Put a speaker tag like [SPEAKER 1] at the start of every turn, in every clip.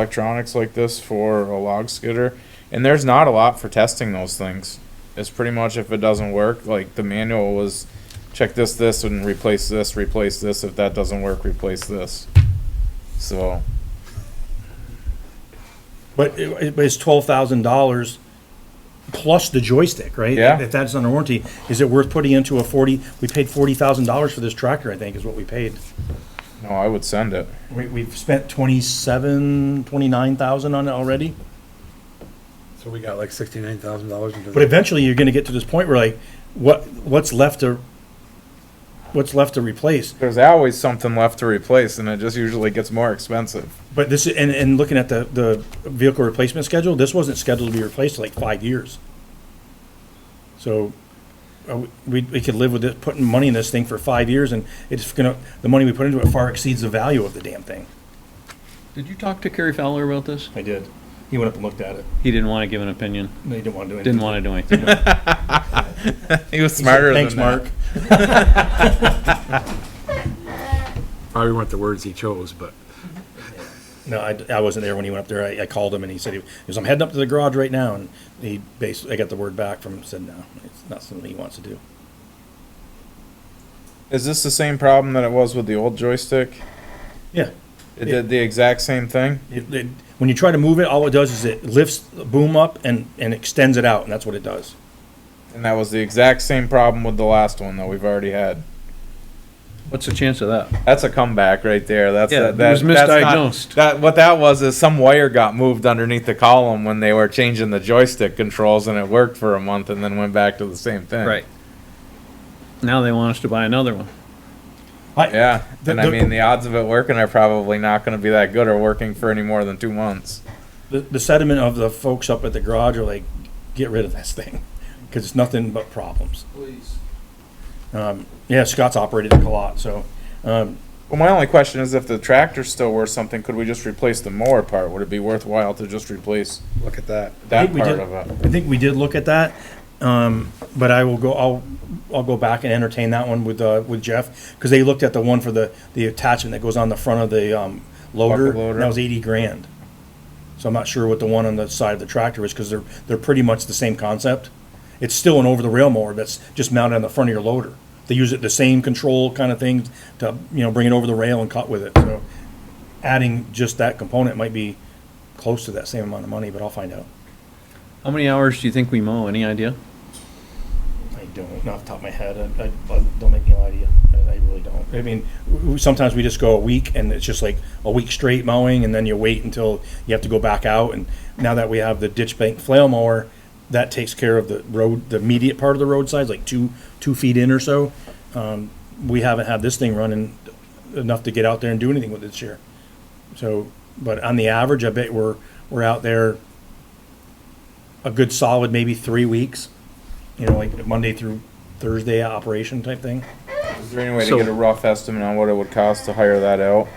[SPEAKER 1] electronics like this for a log skidder, and there's not a lot for testing those things. It's pretty much if it doesn't work, like the manual was, check this, this, and replace this, replace this. If that doesn't work, replace this. So
[SPEAKER 2] But it, it's twelve thousand dollars plus the joystick, right?
[SPEAKER 1] Yeah.
[SPEAKER 2] If that's under warranty, is it worth putting into a forty, we paid forty thousand dollars for this tractor, I think, is what we paid.
[SPEAKER 1] no, I would send it.
[SPEAKER 2] We, we've spent twenty-seven, twenty-nine thousand on it already,
[SPEAKER 3] So we got like sixty-nine thousand dollars into
[SPEAKER 2] but
[SPEAKER 3] the
[SPEAKER 2] eventually you're gonna get to this point where like, what, what's left to, what's left to replace?
[SPEAKER 1] There's always something left to replace, and it just usually gets more expensive.
[SPEAKER 2] But this, and, and looking at the, the vehicle replacement schedule, this wasn't scheduled to be replaced for like five years. So, uh, we, we could live with it, putting money in this thing for five years and it's gonna, the money we put into it far exceeds the value of the damn thing.
[SPEAKER 4] Did you talk to Kerry Fowler about this?
[SPEAKER 2] I did. He went up and looked at it.
[SPEAKER 4] He didn't want to give an opinion.
[SPEAKER 2] No, he didn't wanna do anything.
[SPEAKER 4] Didn't want to do anything.
[SPEAKER 1] He was smarter
[SPEAKER 2] Thanks,
[SPEAKER 1] than that.
[SPEAKER 2] Mark.
[SPEAKER 3] probably weren't the words he chose, but
[SPEAKER 2] No, I, I wasn't there when he went up there. I, I called him and he said, he was, I'm heading up to the garage right now. And he basically, I got the word back from him, said, no, it's not something he wants to do.
[SPEAKER 1] Is this the same problem that it was with the old joystick?
[SPEAKER 2] Yeah.
[SPEAKER 1] It did the exact same thing.
[SPEAKER 2] It, it, when you try to move it, all it does is it lifts the boom up and, and extends it out, and that's what it does.
[SPEAKER 1] And that was the exact same problem with the last one that we've already had.
[SPEAKER 4] What's the chance of that?
[SPEAKER 1] That's a comeback right there. That's
[SPEAKER 4] Yeah,
[SPEAKER 1] that,
[SPEAKER 4] it was
[SPEAKER 1] that- that's not-
[SPEAKER 4] misdiagnosed.
[SPEAKER 1] that what that was is some wire got moved underneath the column when they were changing the joystick controls, and it worked for a month, and then went back to the same thing.
[SPEAKER 4] Now they want us to buy another one.
[SPEAKER 2] I,
[SPEAKER 1] Yeah.
[SPEAKER 2] The-
[SPEAKER 1] and I
[SPEAKER 2] the-
[SPEAKER 1] mean, the odds of it working are probably not going to be that good, or working for any more than two months.
[SPEAKER 2] The, the sentiment of the folks up at the garage are like, get rid of this thing, because it's nothing but problems. Please. Um, yeah, Scott's operated it a lot, so um,
[SPEAKER 1] Well, my only question is, if the tractor's still worth something, could we just replace the mower part? Would it be worthwhile to just replace
[SPEAKER 3] look at that.
[SPEAKER 1] that
[SPEAKER 2] think we
[SPEAKER 1] part
[SPEAKER 2] did-
[SPEAKER 1] of it?
[SPEAKER 2] I think we did look at that. Um, but I will go. I'll I'll go back and entertain that one with uh, with Jeff because they looked at the one for the the attachment that goes on the front of the um, loader.
[SPEAKER 1] Bucket loader.
[SPEAKER 2] and That was eighty grand. So I'm not sure what the one on the side of the tractor is because they're they're pretty much the same concept. It's still an over the rail mower that's just mounted on the front of your loader. They use it the same control kind of thing to you know bring it over the rail and cut with it. So adding just that component might be close to that same amount of money, but I'll find out.
[SPEAKER 4] How many hours do you think we mow? Any idea?
[SPEAKER 2] I don't, not off the top of my head, I, I, I- don't make me lie to you, I, I really don't. I mean, w- w- sometimes we just go a week and it's just like a week straight mowing and then you wait until you have to go back out and now that we have the ditch bank flail mower, that takes care of the road, the immediate part of the roadside, like two, two feet in or so. Um, we haven't had this thing running enough to get out there and do anything with it this year. So, but on the average, I bet we're, we're out there a good solid maybe three weeks you know, like Monday through Thursday operation type thing.
[SPEAKER 1] Is there any way
[SPEAKER 4] So-
[SPEAKER 1] to get a rough estimate on what it would cost to hire that out?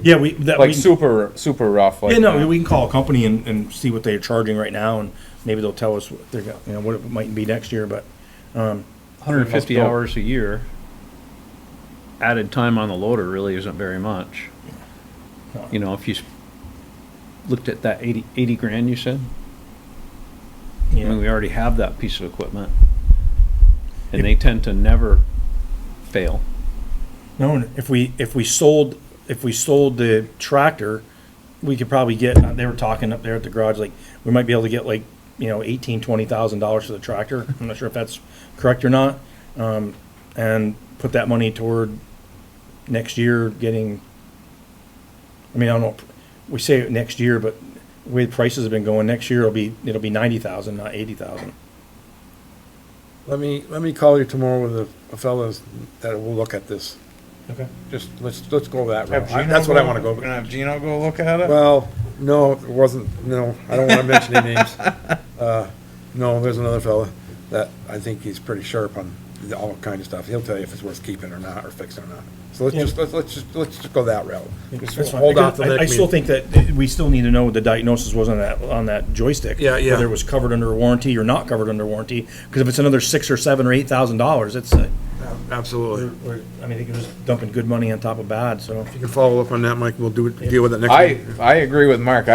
[SPEAKER 2] Yeah, we that
[SPEAKER 1] Like
[SPEAKER 2] we,
[SPEAKER 1] super, super rough. Like
[SPEAKER 2] yeah,
[SPEAKER 1] that.
[SPEAKER 2] no, we can call a company and, and see what they're charging right now, and maybe they'll tell us what they're go- you know what it might be next year. But
[SPEAKER 4] 150
[SPEAKER 1] go.
[SPEAKER 4] hours a year. Added time on the loader really isn't very much.
[SPEAKER 2] No.
[SPEAKER 4] You know, if you s- looked at that 80, 80 grand you said, I
[SPEAKER 2] you
[SPEAKER 4] mean,
[SPEAKER 2] know,
[SPEAKER 4] we already have that piece of equipment. And they tend to never fail.
[SPEAKER 2] no, if we if we sold if we sold the tractor, we could probably get. They were talking up there at the garage, like we might be able to get like you know eighteen twenty thousand dollars for the tractor. I'm not sure if that's correct or not, um, and put that money toward next year getting, I mean, I don't know, we say next year, but the way the prices have been going, next year it'll be, it'll be ninety thousand, not eighty thousand.
[SPEAKER 3] Let me, let me call you tomorrow with a- a fellas that will look at this.
[SPEAKER 2] Okay.
[SPEAKER 3] Just, let's, let's go that
[SPEAKER 1] Have
[SPEAKER 3] route. I-
[SPEAKER 1] Gino
[SPEAKER 3] That's what I wanna
[SPEAKER 1] We're
[SPEAKER 3] go.
[SPEAKER 1] gonna have Gino go look at it.
[SPEAKER 3] Well, no, it wasn't, no, I don't wanna mention any names. Uh, No, there's another fella that I think he's pretty sharp on the- all kind of stuff. He'll tell you if it's worth keeping or not, or fixing or not. So let's
[SPEAKER 2] Yeah.
[SPEAKER 3] just, let's, let's just, let's just go that route. Just
[SPEAKER 2] That's fine.
[SPEAKER 3] Hold off till
[SPEAKER 2] I- I
[SPEAKER 3] next
[SPEAKER 2] still
[SPEAKER 3] meeting.
[SPEAKER 2] think that we still need to know what the diagnosis was on that, on that joystick.
[SPEAKER 3] Yeah, yeah.
[SPEAKER 2] Whether it was covered under warranty or not covered under warranty, because if it's another six or seven or eight thousand dollars, it's, uh,
[SPEAKER 3] Absolutely.
[SPEAKER 2] We're- we're- I mean, I think it was dumping good money on top of bad, so.
[SPEAKER 3] If you can follow up on that, Mike, we'll do, it- deal with it next
[SPEAKER 1] I,
[SPEAKER 3] week.
[SPEAKER 1] I agree with Mark.